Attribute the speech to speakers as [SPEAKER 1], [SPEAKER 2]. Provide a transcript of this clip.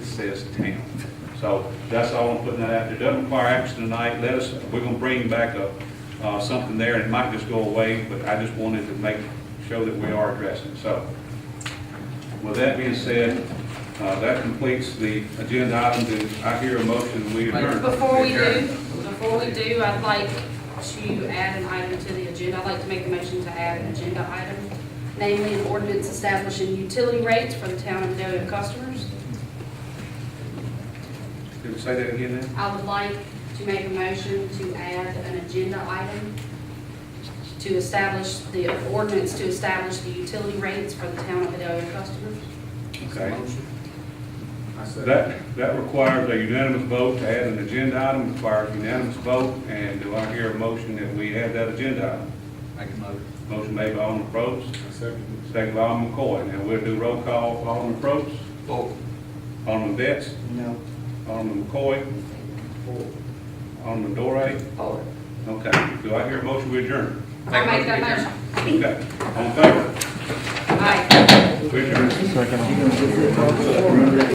[SPEAKER 1] says town. So that's all I'm putting that out there. Doesn't require action tonight. Let us, we're gonna bring back a, uh, something there, and it might just go away, but I just wanted to make, show that we are addressing. So with that being said, uh, that completes the agenda item. Do I hear a motion, we adjourn?
[SPEAKER 2] Before we do, before we do, I'd like to add an item to the agenda. I'd like to make a motion to add an agenda item, namely an ordinance establishing utility rates for the town of Doe customers.
[SPEAKER 1] Did we say that again then?
[SPEAKER 2] I would like to make a motion to add an agenda item to establish the ordinance to establish the utility rates for the town of Doe customers.
[SPEAKER 1] Okay.
[SPEAKER 3] I said,
[SPEAKER 1] That, that requires a unanimous vote to add an agenda item, requires unanimous vote, and do I hear a motion that we add that agenda item?
[SPEAKER 3] make a motion.
[SPEAKER 1] Motion made by Alderman Probst,
[SPEAKER 3] I second
[SPEAKER 1] second by Alderman McCoy. Now we'll do roll call, Alderman Probst,
[SPEAKER 3] it. Vote.
[SPEAKER 1] Alderman Betts,
[SPEAKER 3] No.
[SPEAKER 1] Alderman McCoy, Alderman Dore. Okay, do I hear a motion we adjourn?
[SPEAKER 2] I make that motion.
[SPEAKER 1] Okay, on favor,
[SPEAKER 2] Aye.
[SPEAKER 1] we adjourn.